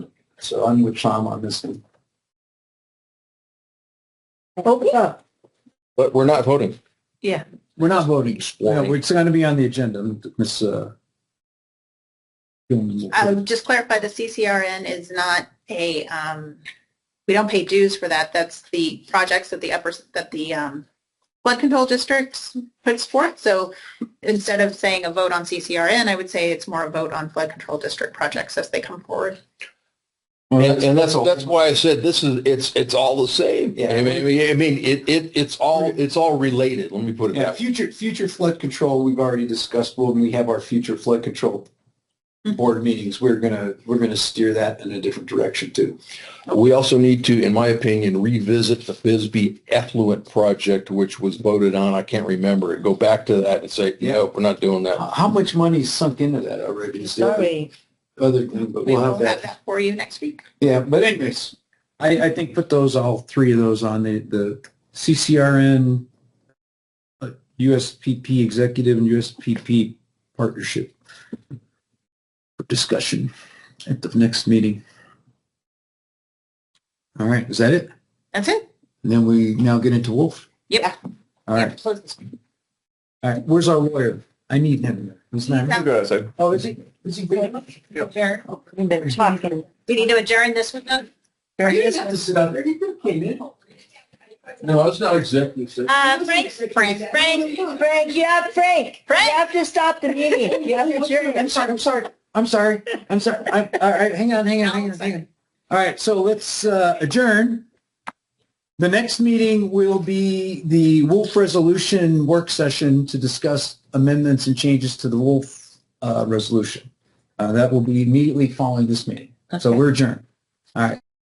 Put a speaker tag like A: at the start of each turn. A: So I'm with Tom on this one.
B: Okay.
C: But we're not voting.
B: Yeah.
A: We're not voting. No,
C: Warning.
A: it's going to be on the agenda, Miss. uh, Gilman.
B: Um, just clarify, the CCRN is not a, um, we don't pay dues for that. That's the projects that the upper, that the, um, flood control districts puts forth. So instead of saying a vote on CCRN, I would say it's more a vote on flood control district projects as they come forward.
A: Well,
C: And, and that's,
A: all.
C: that's why I said this is, it's, it's all the same.
A: Yeah.
C: I mean, I mean, I mean, it, it, it's all, it's all related. Let me put it
A: Yeah,
C: that way.
A: future, future flood control, we've already discussed, when we have our future flood control board meetings, we're gonna, we're gonna steer that in a different direction too.
C: We also need to, in my opinion, revisit the Bisbee effluent project, which was voted on. I can't remember it. Go back to that and say,
A: Yeah.
C: no, we're not doing that.
A: How how much money's sunk into that already? is the other- Other thing, but
B: We
A: we'll
B: will
A: have that.
B: have that for you next week.
A: Yeah, but anyways, I, I think put those, all three of those on the, the CCRN, uh, USPP executive and USPP partnership for discussion at the next meeting. All right, is that it?
B: That's it?
A: And then we now get into Wolf.
B: Yep.
A: All right, all right. Where's our lawyer? I need him. He's not. here. Oh, is he? Is he? You
B: Adjourn.
D: We've been talking.
B: We need to adjourn this one though?
A: didn't have to sit out there. You could have came in.
C: No, it's not executive.
B: Uh, Frank, Frank, Frank,
D: Frank, you have, Frank, you
B: Frank.
D: have to stop the meeting. You have to adjourn.
A: I'm sorry, I'm sorry, I'm sorry, I'm sorry. I'm, all right, hang on, hang on, hang on, hang on. All right, so let's uh, adjourn. The next meeting will be the Wolf Resolution Work Session to discuss amendments and changes to the Wolf uh, Resolution. Uh, That will be immediately following this meeting. So we're adjourned. All right.